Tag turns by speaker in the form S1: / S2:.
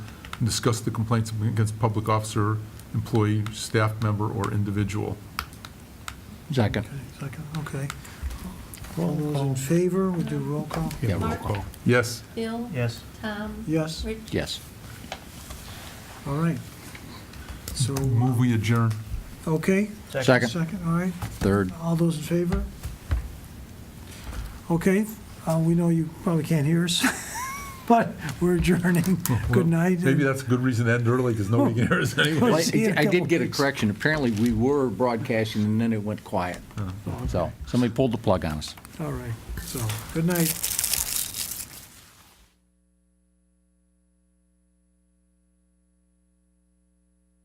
S1: and discuss the complaints against public officer, employee, staff member, or individual.
S2: Second.
S3: Okay, Second, okay. All those in favor, we do roll call?
S2: Yeah, roll
S4: call.
S1: Yes,
S4: Bill?
S5: Yes.
S4: Tom?
S3: Yes,
S4: Rich?
S2: Yes.
S3: all right. So,
S1: move we adjourn.
S3: okay,
S2: Second.
S3: second, all right.
S2: Third.
S3: All those in favor? Okay, uh, we know you probably can't hear us, but we're adjourning. Good night.
S1: Maybe that's a good reason to end early, because nobody can hear us anyway.
S2: Well,
S3: We'll see you in
S2: I
S3: a
S2: I
S3: couple
S2: did get a
S3: weeks.
S2: correction. Apparently, we were broadcasting, Uh-huh. and then it went quiet. So somebody pulled the plug on us.
S3: All right, so, good night.